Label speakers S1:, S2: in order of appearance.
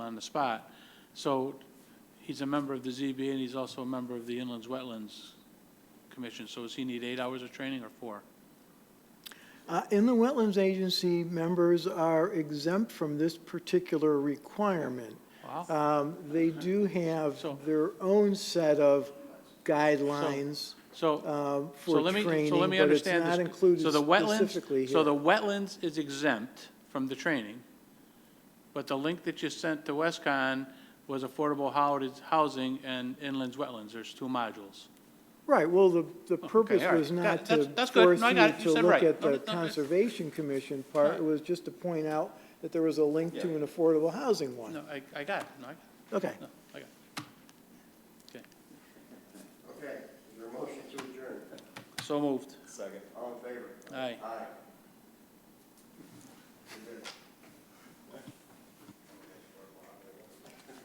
S1: on the spot. So he's a member of the ZBA, and he's also a member of the Inlands Wetlands Commission. So does he need eight hours of training or four?
S2: Uh, Inland Wetlands Agency members are exempt from this particular requirement.
S1: Wow.
S2: Um, They do have
S1: So-
S2: their own set of guidelines
S1: So,
S2: uh,
S1: so
S2: for
S1: let me,
S2: training,
S1: so let me
S2: but it's
S1: understand this.
S2: not included
S1: So the wetlands-
S2: specifically
S1: So the
S2: here.
S1: wetlands is exempt from the training, but the link that you sent to Westcon was affordable hou- housing and inlands wetlands. There's two modules.
S2: Right, well, the, the purpose
S1: all right.
S2: was
S1: Got-
S2: not to
S1: that's- that's good.
S2: force
S1: No, I
S2: you
S1: got it. You
S2: to
S1: said
S2: look
S1: right.
S2: at
S1: No, no,
S2: the
S1: no, no.
S2: Conservation Commission part. It was just to point out that there was a link to an affordable housing one.
S1: No, I, I got it. No, I,
S2: Okay.
S1: no, I got it.
S3: Okay, is there a motion to adjourn?
S1: So moved.
S3: Second. All in favor?
S1: Aye.
S3: Aye.